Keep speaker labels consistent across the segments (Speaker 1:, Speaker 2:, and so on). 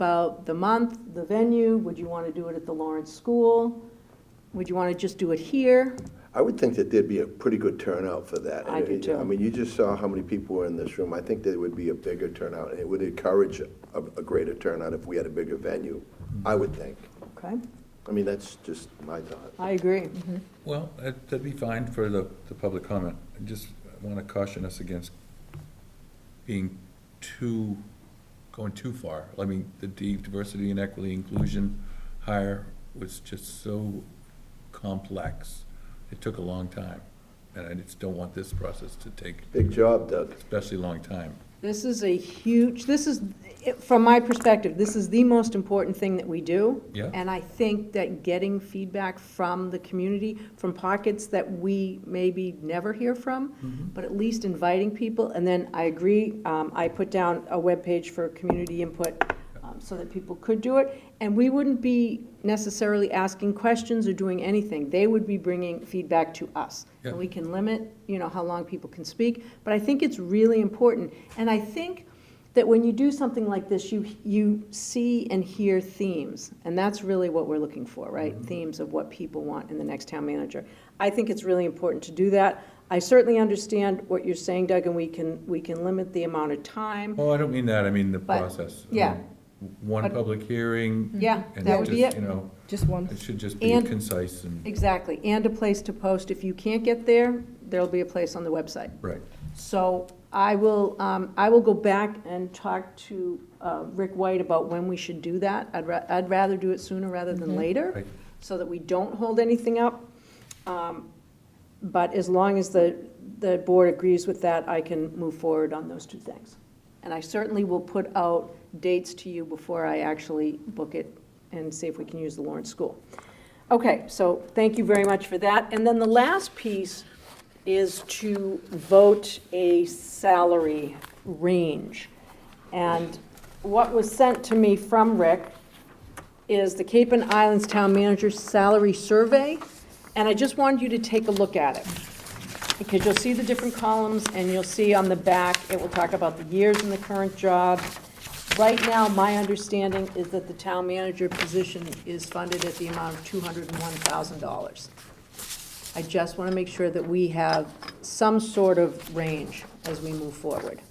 Speaker 1: about the month, the venue, would you want to do it at the Lawrence School? Would you want to just do it here?
Speaker 2: I would think that there'd be a pretty good turnout for that.
Speaker 1: I do too.
Speaker 2: I mean, you just saw how many people were in this room. I think there would be a bigger turnout, and it would encourage a, a greater turnout if we had a bigger venue, I would think.
Speaker 1: Okay,
Speaker 2: I mean, that's just my thought.
Speaker 1: I agree.
Speaker 3: Well, that- that'd be fine for the, the public comment. I just want to caution us against being too, going too far. I mean, the D- diversity and equity inclusion hire was just so complex. It took a long time, and I just don't want this process to take
Speaker 2: Big job, Doug.
Speaker 3: especially long time.
Speaker 1: This is a huge, this is, from my perspective, this is the most important thing that we do.
Speaker 3: Yeah.
Speaker 1: And I think that getting feedback from the community, from pockets that we maybe never hear
Speaker 3: Mm-hmm.
Speaker 1: from, but at least inviting people, and then I agree, um, I put down a webpage for community input um, so that people could do it, and we wouldn't be necessarily asking questions or doing anything. They would be bringing feedback to us. And
Speaker 3: Yeah.
Speaker 1: we can limit, you know, how long people can speak, but I think it's really important. And I think that when you do something like this, you, you see and hear themes, and that's really what we're looking for, right?
Speaker 3: Mm-hmm.
Speaker 1: Themes of what people want in the next town manager. I think it's really important to do that. I certainly understand what you're saying, Doug, and we can, we can limit the amount of time.
Speaker 3: Oh, I don't mean that, I mean the
Speaker 1: But,
Speaker 3: process. I
Speaker 1: yeah.
Speaker 3: mean, One
Speaker 1: But-
Speaker 3: public hearing.
Speaker 1: Yeah,
Speaker 3: and
Speaker 1: that would be
Speaker 3: just,
Speaker 1: it.
Speaker 3: You know,
Speaker 4: Mm-hmm. Just one.
Speaker 3: it should just be
Speaker 1: And-
Speaker 3: concise and,
Speaker 1: Exactly, and a place to post. If you can't get there, there'll be a place on the website.
Speaker 3: right.
Speaker 1: So I will, um, I will go back and talk to, uh, Rick White about when we should do that. I'd ra- I'd rather do it sooner rather than later,
Speaker 3: Right.
Speaker 1: so that we don't hold anything up. Um, But as long as the, the board agrees with that, I can move forward on those two things. And I certainly will put out dates to you before I actually book it and see if we can use the Lawrence School. Okay, so thank you very much for that. And then the last piece is to vote a salary range. And what was sent to me from Rick is the Cape and Islands Town Manager's Salary Survey, and I just wanted you to take a look at it. Because you'll see the different columns, and you'll see on the back, it will talk about the years in the current job. Right now, my understanding is that the town manager position is funded at the amount of two hundred and one thousand dollars. I just want to make sure that we have some sort of range as we move forward.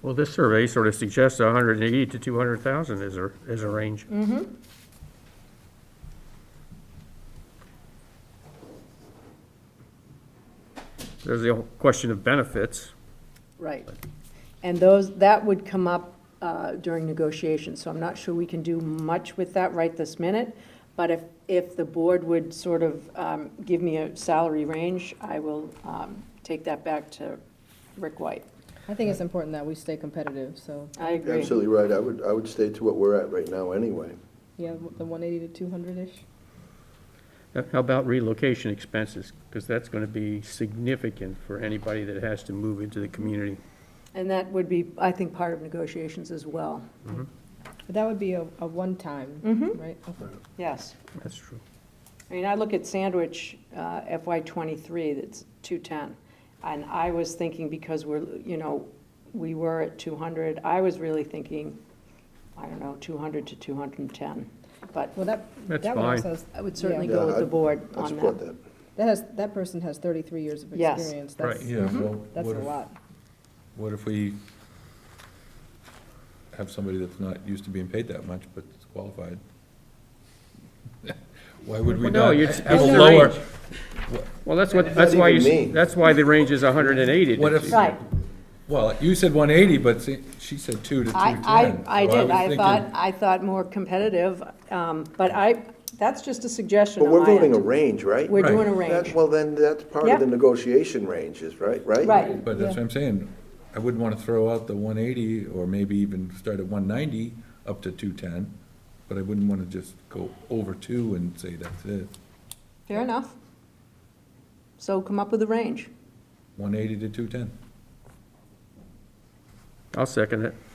Speaker 5: Well, this survey sort of suggests 180 to 200,000 is a, is a range. There's the whole question of benefits.
Speaker 1: Right. And those, that would come up uh, during negotiations, so I'm not sure we can do much with that right this minute. But if, if the board would sort of um, give me a salary range, I will um, take that back to Rick White.
Speaker 4: I think it's important that we stay competitive, so,
Speaker 1: I agree.
Speaker 2: Absolutely right. I would, I would stay to what we're at right now anyway.
Speaker 4: yeah, the one eighty to two hundred-ish.
Speaker 5: Uh, How about relocation expenses? Because that's going to be significant for anybody that has to move into the community.
Speaker 1: And that would be, I think, part of negotiations as well.
Speaker 4: But that would be a, a one-time,
Speaker 1: Mhm.
Speaker 4: right? Okay.
Speaker 1: Yes.
Speaker 5: That's true.
Speaker 1: I mean, I look at Sandwich uh, FY '23, that's 210, and I was thinking, because we're, you know, we were at 200, I was really thinking, I don't know, 200 to 210, but
Speaker 4: Well, that,
Speaker 5: That's
Speaker 4: that one also
Speaker 5: fine.
Speaker 4: has,
Speaker 1: I would certainly
Speaker 2: Yeah.
Speaker 1: go with
Speaker 2: Yeah,
Speaker 1: the
Speaker 2: I'd-
Speaker 1: board
Speaker 2: I'd
Speaker 1: on
Speaker 2: support
Speaker 1: that.
Speaker 2: that.
Speaker 4: that has, that person has thirty-three years of
Speaker 1: Yes.
Speaker 4: experience.
Speaker 5: Right,
Speaker 1: Mm-hmm.
Speaker 4: That's,
Speaker 3: Yeah, well,
Speaker 4: that's a
Speaker 3: what if-
Speaker 4: lot.
Speaker 3: What if we have somebody that's not used to being paid that much, but is qualified? Why would we
Speaker 5: Well, no,
Speaker 3: not
Speaker 5: it's-
Speaker 3: have a
Speaker 5: it's the
Speaker 3: lower?
Speaker 5: range. Well, that's what, that's
Speaker 2: that
Speaker 5: why you,
Speaker 2: even
Speaker 5: s-
Speaker 2: mean?
Speaker 5: that's why the range is 180.
Speaker 3: What if-
Speaker 1: Right,
Speaker 3: Well, you said one eighty, but see, she said two to two ten.
Speaker 1: I, I, I did, I thought, I thought more competitive, um, but I, that's just a suggestion
Speaker 2: But
Speaker 1: on my
Speaker 2: we're voting a
Speaker 1: end.
Speaker 2: range, right?
Speaker 1: We're doing a
Speaker 3: Right.
Speaker 1: range,
Speaker 2: That- Well, then that's part
Speaker 1: Yeah.
Speaker 2: of the negotiation ranges, right? Right?
Speaker 1: right.
Speaker 3: But that's what I'm saying. I wouldn't want to throw out the one eighty or maybe even start at one ninety up to two ten. But I wouldn't want to just go over two and say that's it.
Speaker 1: Fair enough. So come up with a range.
Speaker 3: One eighty to two ten.
Speaker 5: I'll second it.